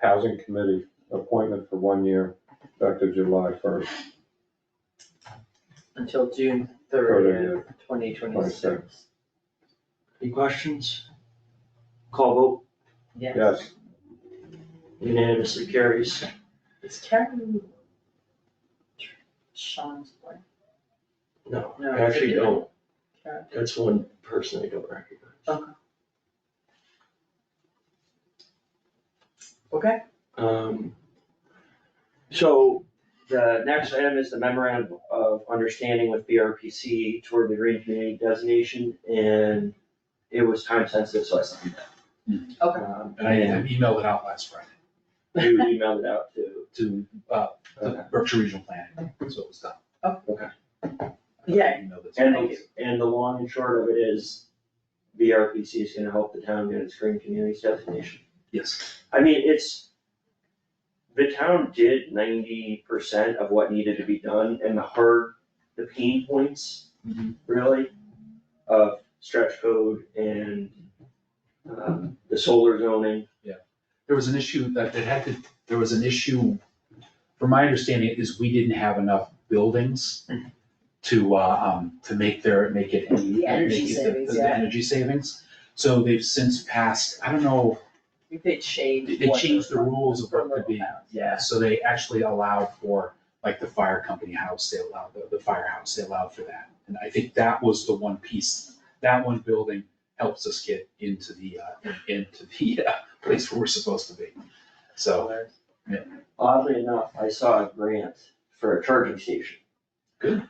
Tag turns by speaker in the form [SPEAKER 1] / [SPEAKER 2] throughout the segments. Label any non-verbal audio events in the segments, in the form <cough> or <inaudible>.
[SPEAKER 1] Housing Committee, appointment for one year, effective July first,
[SPEAKER 2] until June
[SPEAKER 1] Thirtieth.
[SPEAKER 2] thirtieth, twenty twenty-six.
[SPEAKER 1] Twenty-six.
[SPEAKER 3] Any questions? Call vote
[SPEAKER 2] Yes.
[SPEAKER 1] yes,
[SPEAKER 3] unanimously carries.
[SPEAKER 2] Is Karen Sean's boy?
[SPEAKER 3] No,
[SPEAKER 2] No,
[SPEAKER 3] I
[SPEAKER 2] it's a
[SPEAKER 3] actually don't.
[SPEAKER 2] Karen.
[SPEAKER 3] That's one person I don't recognize.
[SPEAKER 2] Okay,
[SPEAKER 3] Um, so the next item is the memorandum of understanding with BRPC toward the green community designation and it was time sensitive, so I signed that.
[SPEAKER 2] Mm-hmm. Okay.
[SPEAKER 3] Um,
[SPEAKER 4] And
[SPEAKER 3] <laughs>
[SPEAKER 4] I I emailed it out last Friday
[SPEAKER 3] You emailed it out to,
[SPEAKER 4] to, uh,
[SPEAKER 3] Okay.
[SPEAKER 4] the Berkshire Regional Planning, so it was done.
[SPEAKER 2] Oh.
[SPEAKER 3] Okay.
[SPEAKER 2] Yeah.
[SPEAKER 4] I emailed it to
[SPEAKER 2] <laughs>
[SPEAKER 3] and,
[SPEAKER 2] Thank
[SPEAKER 3] the-
[SPEAKER 2] you.
[SPEAKER 3] and the long and short of it is BRPC is gonna help the town get its green community designation.
[SPEAKER 4] Yes,
[SPEAKER 3] I mean, it's, the town did ninety percent of what needed to be done and the hard, the pain points
[SPEAKER 4] Mhm.
[SPEAKER 3] really of stretch code and um, the solar zoning.
[SPEAKER 4] there was an issue that it had to, there was an issue, from my understanding is we didn't have enough buildings to, uh, um, to make their, make it. any-
[SPEAKER 2] The energy
[SPEAKER 4] make it the-
[SPEAKER 2] savings,
[SPEAKER 4] the-
[SPEAKER 2] yeah.
[SPEAKER 4] The energy savings, so they've since passed, I don't know,
[SPEAKER 2] we did change.
[SPEAKER 4] They
[SPEAKER 2] what
[SPEAKER 4] changed the rules of what could be.
[SPEAKER 2] Yeah.
[SPEAKER 4] So they actually allowed for, like, the fire company house, they allowed, the, the firehouse, they allowed for that. And I think that was the one piece, that one building helps us get into the, uh, into the, uh, place where we're supposed to be. <laughs> So, yeah.
[SPEAKER 3] Oddly enough, I saw a grant for a charging station.
[SPEAKER 4] Good.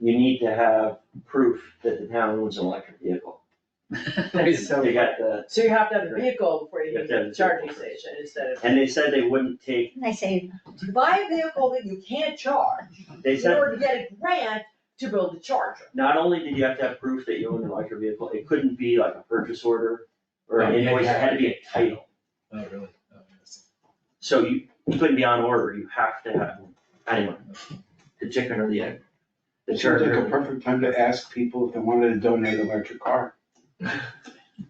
[SPEAKER 3] You need to have proof that the town owns an electric vehicle.
[SPEAKER 2] That's so
[SPEAKER 3] They
[SPEAKER 2] funny.
[SPEAKER 3] got the,
[SPEAKER 2] So you have to have a vehicle before you
[SPEAKER 3] You have
[SPEAKER 2] can
[SPEAKER 3] to have
[SPEAKER 2] get
[SPEAKER 3] a
[SPEAKER 2] a charging
[SPEAKER 3] vehicle first.
[SPEAKER 2] station instead of,
[SPEAKER 3] and they said they wouldn't take,
[SPEAKER 5] And I say,
[SPEAKER 2] to buy a vehicle that you can't charge,
[SPEAKER 3] they
[SPEAKER 2] in
[SPEAKER 3] said,
[SPEAKER 2] order to get a grant to build the charger.
[SPEAKER 3] not only did you have to have proof that you owned an electric vehicle, it couldn't be like a purchase order or an
[SPEAKER 4] No,
[SPEAKER 3] invoice,
[SPEAKER 4] you had to
[SPEAKER 3] it
[SPEAKER 4] have-
[SPEAKER 3] had to be a title.
[SPEAKER 4] Oh, really? Oh, interesting.
[SPEAKER 3] So you, you couldn't be on order, you have to have, anyway, the chicken or the egg. The
[SPEAKER 6] It seems like
[SPEAKER 3] charger.
[SPEAKER 6] a perfect time to ask people if they wanted to donate an electric car.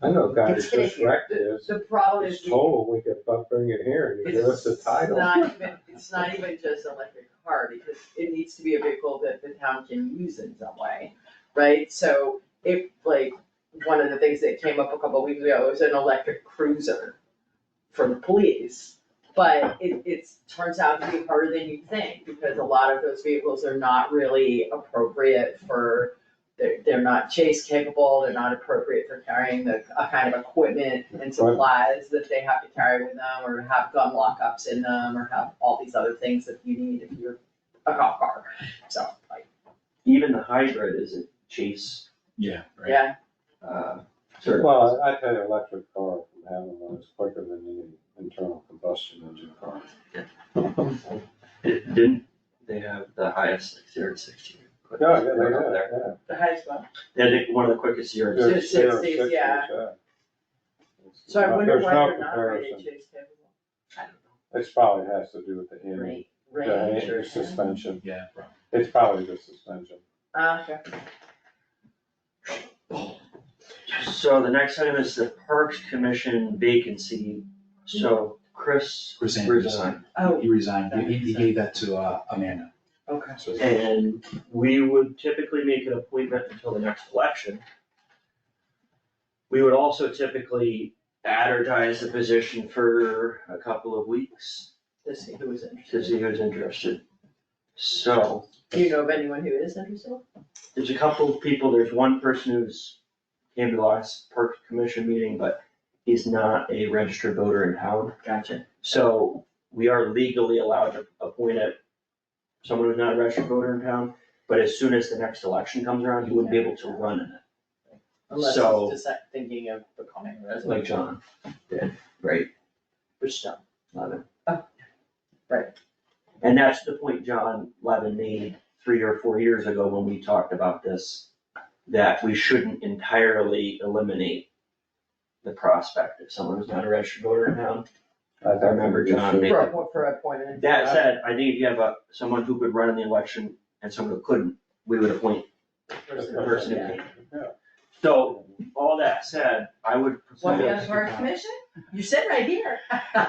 [SPEAKER 1] I know, guys,
[SPEAKER 5] It's gonna
[SPEAKER 1] just wrecked this,
[SPEAKER 2] The problem
[SPEAKER 1] it's
[SPEAKER 2] is we
[SPEAKER 1] total, we could fuck bring it here, you give us the title.
[SPEAKER 2] It's not even, it's not even just an electric car, because it needs to be a vehicle that the town can use in some way, right? So if, like, one of the things that came up a couple of weeks ago was an electric cruiser for the police. But it, it's, turns out to be harder than you think, because a lot of those vehicles are not really appropriate for, they're, they're not chase capable, they're not appropriate for carrying the, a kind of equipment and supplies that they have to carry with them, or have gun lockups in them, or have all these other things that you need if you're a cop car, so, like,
[SPEAKER 3] Even the hybrid is a chase,
[SPEAKER 4] Yeah, right.
[SPEAKER 2] yeah.
[SPEAKER 3] uh, sort of-
[SPEAKER 1] Well, I I tell you, electric car from having one is quicker than any internal combustion engine car.
[SPEAKER 3] It didn't, they have the highest like zero to sixty. quick-
[SPEAKER 1] Yeah, yeah,
[SPEAKER 3] right up there.
[SPEAKER 1] yeah,
[SPEAKER 2] The highest one.
[SPEAKER 3] They had the- one of the quickest
[SPEAKER 1] yeah.
[SPEAKER 3] zeros.
[SPEAKER 2] Zero to
[SPEAKER 1] There's zero
[SPEAKER 2] sixties,
[SPEAKER 1] sixties,
[SPEAKER 2] yeah.
[SPEAKER 1] It's
[SPEAKER 2] So I
[SPEAKER 1] not-
[SPEAKER 2] wonder
[SPEAKER 1] there's
[SPEAKER 2] why
[SPEAKER 1] no
[SPEAKER 2] they're not rated
[SPEAKER 1] comparison.
[SPEAKER 2] chase capable. I don't know.
[SPEAKER 1] It's probably has to do with the engine,
[SPEAKER 2] Rate,
[SPEAKER 1] the
[SPEAKER 2] range
[SPEAKER 1] engine
[SPEAKER 2] or something.
[SPEAKER 1] suspension,
[SPEAKER 4] Yeah, right.
[SPEAKER 1] it's probably the suspension.
[SPEAKER 2] Ah, okay.
[SPEAKER 3] So the next item is the Parks Commission vacancy, so Chris
[SPEAKER 4] Chris Andrews.
[SPEAKER 3] resigned.
[SPEAKER 2] Oh,
[SPEAKER 4] He resigned, he, he gave that to, uh, Amanda,
[SPEAKER 2] okay.
[SPEAKER 4] so.
[SPEAKER 3] And we would typically make an appointment until the next election. We would also typically advertise the position for a couple of weeks
[SPEAKER 2] To see who was interested.
[SPEAKER 3] to see who's interested. So,
[SPEAKER 2] Do you know of anyone who is interested?
[SPEAKER 3] there's a couple of people, there's one person who's came to the last park commission meeting, but he's not a registered voter in town.
[SPEAKER 2] Gotcha.
[SPEAKER 3] So we are legally allowed to appoint a, someone who's not a registered voter in town, but as soon as the next election comes around, he wouldn't be able to run in it,
[SPEAKER 2] Unless
[SPEAKER 3] So-
[SPEAKER 2] he's just like, thinking of becoming a resident,
[SPEAKER 3] like John did, right?
[SPEAKER 2] which don't.
[SPEAKER 3] Levin.
[SPEAKER 2] Oh, right.
[SPEAKER 3] And that's the point John Levin made three or four years ago when we talked about this, that we shouldn't entirely eliminate the prospect of someone who's not a registered voter in town.
[SPEAKER 1] think
[SPEAKER 3] remember
[SPEAKER 1] we should-
[SPEAKER 3] John made-
[SPEAKER 2] For, a- Uh, for appointment.
[SPEAKER 3] That said, I think if you have a, someone who could run in the election and someone who couldn't, we would appoint
[SPEAKER 2] Person.
[SPEAKER 3] the person who
[SPEAKER 2] Yeah.
[SPEAKER 3] can't. So, all that said, I would.
[SPEAKER 2] What,
[SPEAKER 3] propose-
[SPEAKER 2] the other commission? You said right here. <laughs>